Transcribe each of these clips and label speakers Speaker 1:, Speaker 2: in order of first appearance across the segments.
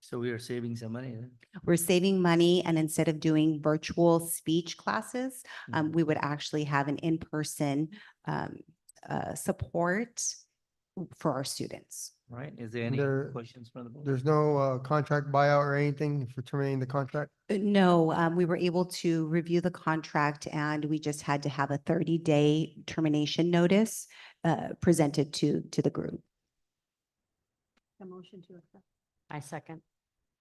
Speaker 1: So we are saving some money. huh?
Speaker 2: We're saving money and instead of doing virtual speech classes, um,
Speaker 1: Mhm.
Speaker 2: we would actually have an in-person, um, uh, support for our students.
Speaker 1: Right? Is there any
Speaker 3: There-
Speaker 1: questions from the board?
Speaker 3: There's no uh, contract buyout or anything for terminating the contract?
Speaker 2: Uh, No, um, we were able to review the contract and we just had to have a thirty-day termination notice, uh, presented to, to the group.
Speaker 4: A motion to accept. I second.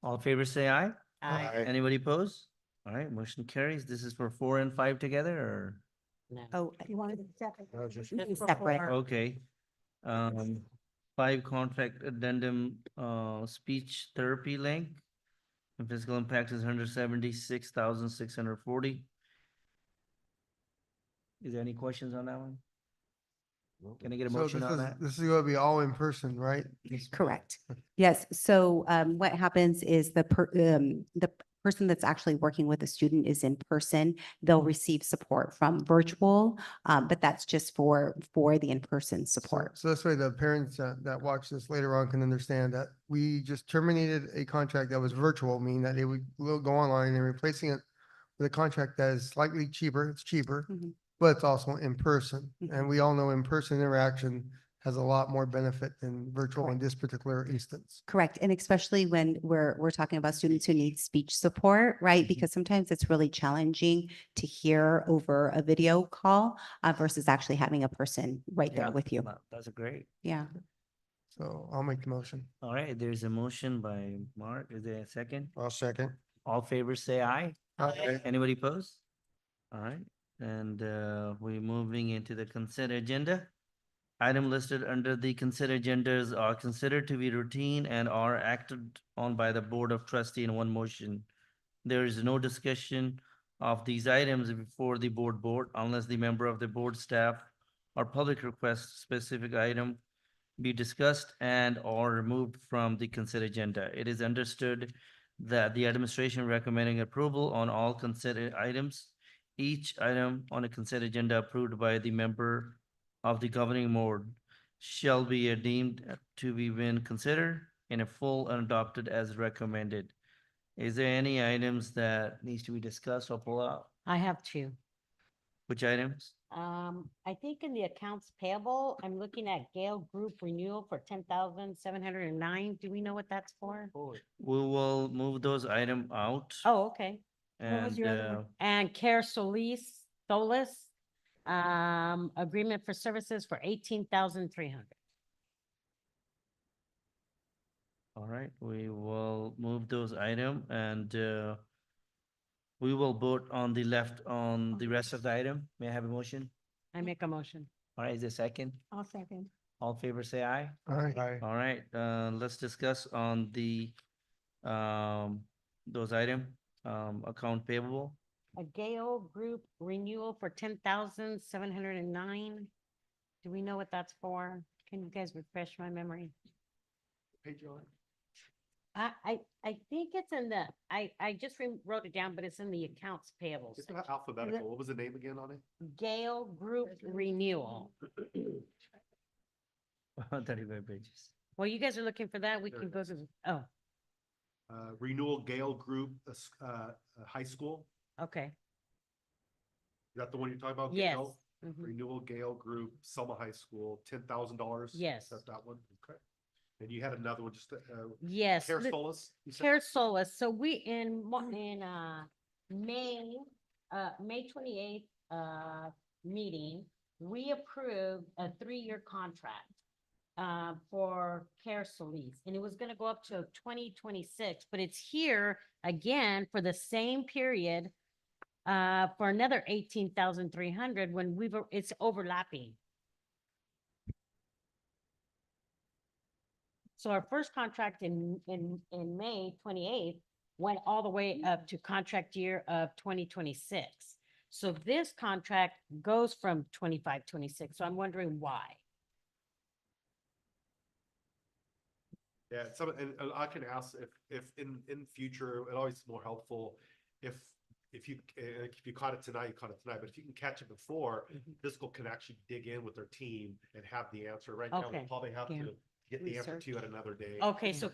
Speaker 1: All in favor, say aye.
Speaker 3: Aye.
Speaker 1: Anybody oppose? All right, motion carries. This is for four and five together or?
Speaker 2: Oh,
Speaker 4: You wanted to second?
Speaker 3: No, just-
Speaker 4: Just for
Speaker 2: Separate.
Speaker 4: four.
Speaker 1: Okay. Um, five contract addendum, uh, speech therapy link. The physical impact is hundred seventy-six thousand six hundred forty. Is there any questions on that one? Can I get a
Speaker 3: So
Speaker 1: motion
Speaker 3: this
Speaker 1: on
Speaker 3: is-
Speaker 1: that?
Speaker 3: This is gonna be all in person, right?
Speaker 2: Correct. Yes. So um, what happens is the per, um, the p- person that's actually working with the student is in person. They'll receive support from virtual, um, but that's just for, for the in-person
Speaker 3: So-
Speaker 2: support.
Speaker 3: So this way the parents uh, that watch this later on can understand that we just terminated a contract that was virtual, meaning that it would will go online and replacing it with a contract that is slightly cheaper, it's cheaper,
Speaker 2: Mhm.
Speaker 3: but it's also in person.
Speaker 2: Mhm.
Speaker 3: And we all know in-person interaction has a lot more benefit than virtual in
Speaker 2: Correct.
Speaker 3: this particular instance.
Speaker 2: Correct. And especially when we're, we're talking about students who need speech support, right? Because sometimes it's really challenging to hear over a video call uh, versus actually having a person right
Speaker 1: Yeah,
Speaker 2: there with you.
Speaker 1: that- That's great.
Speaker 2: Yeah.
Speaker 3: So I'll make the motion.
Speaker 1: All right, there's a motion by Mark. Is there a second?
Speaker 3: I'll second.
Speaker 1: All favors say aye.
Speaker 3: Aye.
Speaker 1: Anybody pose? All right, and uh, we're moving into the consent agenda. Item listed under the consent agendas are considered to be routine and are acted on by the Board of Trustee in one motion. There is no discussion of these items before the board board unless the member of the board staff or public requests specific item be discussed and or removed from the consent agenda. It is understood that the administration recommending approval on all considered items. Each item on a consent agenda approved by the member of the governing board shall be deemed to be been considered in a full and adopted as recommended. Is there any items that needs to be discussed or pull out?
Speaker 4: I have two.
Speaker 1: Which items?
Speaker 4: Um, I think in the accounts payable, I'm looking at Gale Group renewal for ten thousand seven hundred and nine. Do we know what that's for?
Speaker 1: We will move those item out
Speaker 4: Oh, okay. What was
Speaker 1: and
Speaker 4: your other
Speaker 1: uh,
Speaker 4: one? And Care Solis, Solis, um, agreement for services for eighteen thousand three hundred.
Speaker 1: All right, we will move those item and uh, we will vote on the left on the rest of the item. May I have a motion?
Speaker 4: I make a motion.
Speaker 1: All right, is there a second?
Speaker 4: I'll second.
Speaker 1: All in favor say aye.
Speaker 3: Aye.
Speaker 1: All right, uh, let's discuss on the um, those item, um, account payable.
Speaker 4: A Gale Group renewal for ten thousand seven hundred and nine. Do we know what that's for? Can you guys refresh my memory? I, I, I think it's in the, I, I just re- wrote it down, but it's in the accounts payable.
Speaker 5: It's
Speaker 4: section.
Speaker 5: not alphabetical. What was the name again on it?
Speaker 4: Gale Group renewal.
Speaker 1: Thirty-five pages.
Speaker 4: Well, you guys are looking for that. We
Speaker 5: There
Speaker 4: can
Speaker 5: it
Speaker 4: go to, the oh,
Speaker 5: Uh, Renewal Gale Group, uh, s- uh, uh, High School.
Speaker 4: okay.
Speaker 5: Is that the one you're talking about?
Speaker 4: Yes.
Speaker 5: Gale?
Speaker 4: Mhm.
Speaker 5: Renewal Gale Group, Selma High School, ten thousand dollars.
Speaker 4: Yes.
Speaker 5: Is that that one? Okay. And you had another one, just, uh,
Speaker 4: Yes.
Speaker 5: Care
Speaker 4: the-
Speaker 5: Solis? you said? Mm-hmm.
Speaker 4: Care Solis, so we in, Mar- in, uh, May, uh, May twenty-eighth, uh, meeting, we approved a three-year contract, uh, for Care Solis, and it was gonna go up to twenty twenty-six, but it's here again for the same period, uh, for another eighteen thousand three hundred when we were, it's overlapping. So our first contract in, in, in May twenty-eighth went all the way up to contract year of twenty twenty-six. So this contract goes from twenty-five, twenty-six, so I'm wondering why.
Speaker 5: Yeah, some, and, and I can ask if, if in, in future, it always more helpful if, if you, uh, if you caught it tonight, you caught it tonight, but if you can catch it before,
Speaker 4: Mm-hmm.
Speaker 5: Fiscal can actually dig in with their team and have the answer. Right now, we
Speaker 4: Okay,
Speaker 5: probably have
Speaker 4: yeah.
Speaker 5: to get the answer to you at another day.
Speaker 4: Okay, so